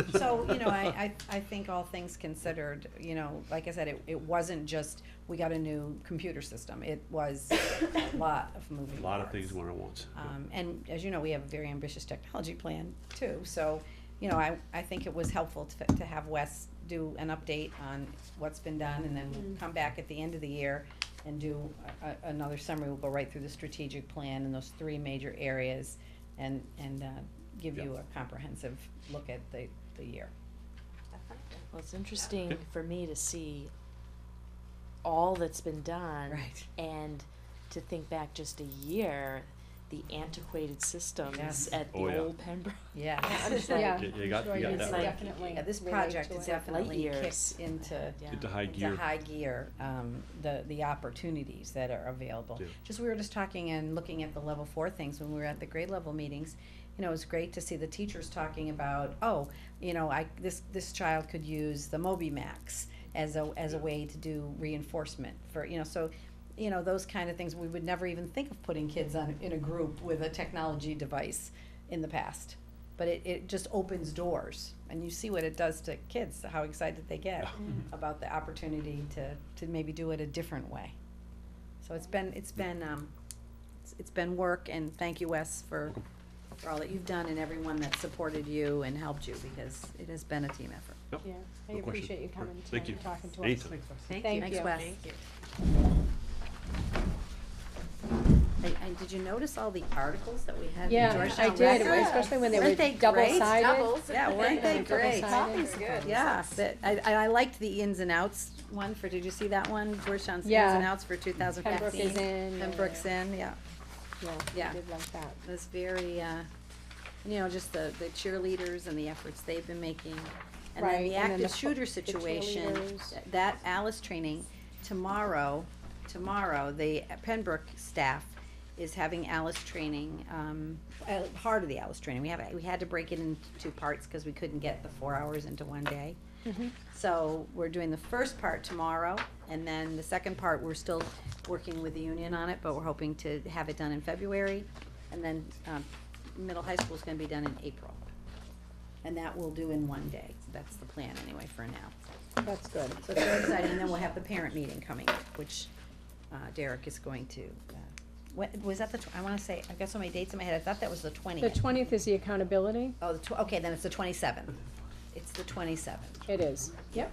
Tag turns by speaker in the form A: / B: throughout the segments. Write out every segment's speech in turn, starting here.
A: So, you know, I, I, I think all things considered, you know, like I said, it, it wasn't just, we got a new computer system, it was a lot of moving
B: A lot of
A: parts.
B: things went at once.
A: Um, and as you know, we have a very ambitious technology plan too, so, you know, I, I think it was helpful to, to have Wes do an update on what's been done, and then we'll come back at the end of the year and do a, a- another summary, we'll go right through the strategic plan and those three major areas, and, and, uh, give you a comprehensive look at the, the year.
C: Well, it's interesting for me to see all that's been done.
A: Right.
C: And to think back just a year, the antiquated systems
A: Yes.
C: at the
B: Oh, yeah.
C: old Pembroke.
A: Yeah.
C: I'm just
D: Yeah.
B: You- you got-
D: sure
B: you got
D: it's
C: that
D: like
C: right.
D: Definitely.
A: Yeah, this
D: relate
A: project
D: to
A: is
D: it.
A: definitely
C: years.
A: kicked into,
C: Yeah.
B: Into high
A: into
B: gear.
A: high gear, um, the, the opportunities that are available.
B: Yeah.
A: Just, we were just talking and looking at the level four things when we were at the grade level meetings. You know, it was great to see the teachers talking about, oh, you know, I, this, this child could use the Moby Max as a, as a
B: Yeah.
A: way to do reinforcement for, you know, so, you know, those kind of things, we would never even think of putting kids on, in a group with a technology device in the past. But it, it just opens doors and you see what it does to kids, how excited they get
D: Mm-hmm.
A: about the opportunity to, to maybe do it a different way. So it's been, it's been, um, it's, it's been work and thank you Wes for, for all that you've done and everyone that supported you and helped you because it has been a team effort.
D: Yeah, I
B: No question.
D: appreciate you coming
B: Right. Thank
D: tonight and
B: you.
D: talking to us.
B: Anytime.
D: Thank you.
A: Thanks Wes. I- and did you notice all the articles that we had in
D: Yeah, I
A: Georgetown
D: did,
A: Record?
D: especially when they
A: Weren't
D: were
A: they
D: double
A: great?
D: sided.
A: Yeah, weren't they
D: Yeah.
A: great?
D: Copies
A: Yeah, that, I, and I liked the ins and outs one for, did you see that one, Georgetown's ins
D: Yeah.
A: and outs for two thousand fifteen?
D: Pembroke is in.
A: Pembroke's in, yeah,
D: Yeah,
A: Yeah.
D: I did like that.
A: it was very, uh, you know, just the, the cheerleaders and the efforts they've been making. And then
D: Right,
A: the
D: and then the
A: active
D: fo-
A: shooter
D: the
A: situation,
D: cheerleaders.
A: th- that Alice training, tomorrow, tomorrow, the Pembroke staff is having Alice training, um, uh, part of the Alice training, we have, we had to break it into two parts, cause we couldn't get the four hours into one day. So we're doing the first part tomorrow, and then the second part, we're still working with the union on it, but we're hoping to have it done in February. And then, um, middle high school's gonna be done in April. And that we'll do in one day, that's the plan anyway for now.
D: That's good.
A: So it's very exciting, and then we'll have the parent meeting coming, up, which, uh, Derek is going to, uh, what, was that the, tw- I wanna say, I've got so many dates in my head, I thought that was the
D: The
A: twentieth.
D: twentieth is the accountability.
A: Oh, the tw- okay, then it's the twenty-seventh. It's the twenty-seventh,
D: It is. Yep.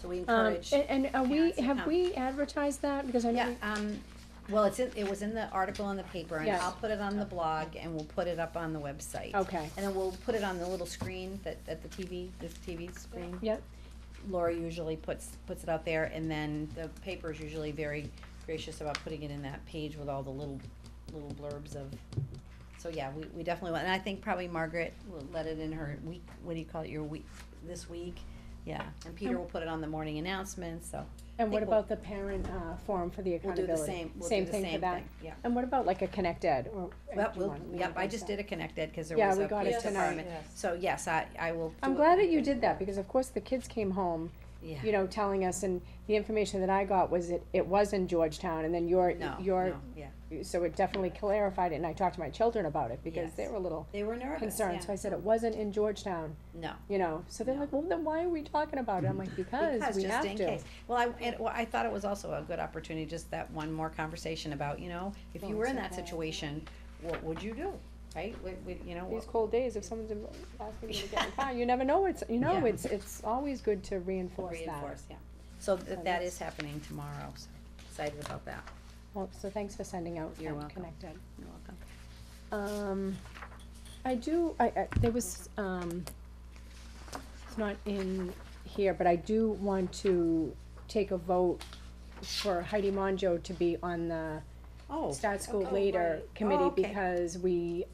A: so we
D: Um,
A: encourage.
D: and, and are we,
A: parents to
D: have
A: come.
D: we advertised that? Because I know.
A: Yeah, um, well, it's in, it was in the article in the paper, and
D: Yes.
A: I'll put it on the blog, and we'll put it up on the website.
D: Okay.
A: And then we'll put it on the little screen that, at the TV, this TV screen.
D: we- Yep,
A: Laura usually puts, puts it out there, and then the paper is usually very gracious about putting it in that page with all the little, little blurbs of, so yeah, we, we definitely want, and I think probably Margaret will let it in her week, what do you call it, your week, this week? Yeah, and Peter will put it on the morning announcements, so.
D: and
A: think
D: what
A: we'll-
D: about the parent, uh, forum for the
A: We'll do
D: accountability?
A: the same, we'll do
D: Same
A: the
D: thing for
A: same
D: that?
A: thing, yeah.
D: And what about like a Connect Ed or?
A: Well,
D: do you
A: we'll,
D: want- we
A: yep,
D: wanna
A: I
D: do
A: just
D: that?
A: did a connected, cause there
D: Yeah,
A: was
D: we
A: a
D: got it
A: police
D: tonight.
A: department, so yes, I, I will.
D: I'm
A: do
D: glad
A: it.
D: that you did that, because of course the kids came home, you
A: Yeah,
D: know, telling us, and the information that I got was it, it was in Georgetown, and then your,
A: no,
D: your,
A: no, yeah,
D: so it definitely clarified it, and I talked to my children about it, because they
A: Yes.
D: were a little
A: they were nervous,
D: concerned, so
A: yeah,
D: I said it wasn't in Georgetown,
A: no.
D: you know, so they're
A: No.
D: like, well, then why are we talking about it? I'm like, because
A: Because
D: we
A: just
D: have
A: in
D: to.
A: case. Well, I, and, well, I thought it was also a good opportunity, just that one more conversation about, you know, if you
D: Well,
A: were in
D: it's
A: that
D: okay.
A: situation, what would you do, right? Would, would- you know,
D: These
A: what-
D: cold days, if someone's in- asking me to get in the car, you never know, it's, you know,
A: Yeah.
D: it's, it's always good to reinforce that.
A: reinforce, yeah. So that, that
D: that's-
A: is happening tomorrow, so excited about that,
D: Well, so thanks for sending out
A: You're
D: that
A: welcome.
D: Connect Ed.
A: you're welcome.
D: Um, I do, I, I, there was, um, it's not in here, but I do want to take a vote for Heidi Monjo to be on the
A: Oh.
D: Start School
A: okay.
D: Later
A: Right. Oh,
D: Committee
A: okay.
D: because we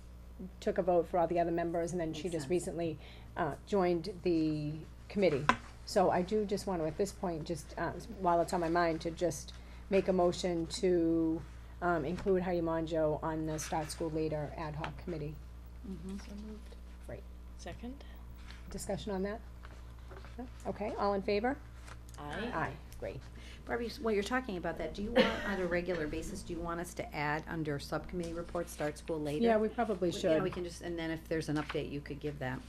D: took a vote for all the other members and then she
A: Makes
D: just
A: sense.
D: recently, uh, joined the committee. So I do just want to, at this point, just, uh, while it's on my mind, to just make a motion to, um, include Heidi Monjo on the Start School Later Ad Hoc Committee.
A: mm-hmm.
C: Second?
D: Discussion on that? No? Okay, all in favor?
C: Aye.
D: Aye, great.
A: Barbie, s- while you're talking about that, do you want, on a regular basis, do you want us to add under subcommittee reports, start school later?
D: Yeah, we probably
A: You know, we
D: should.
A: can just, and then if there's an update, you could give that.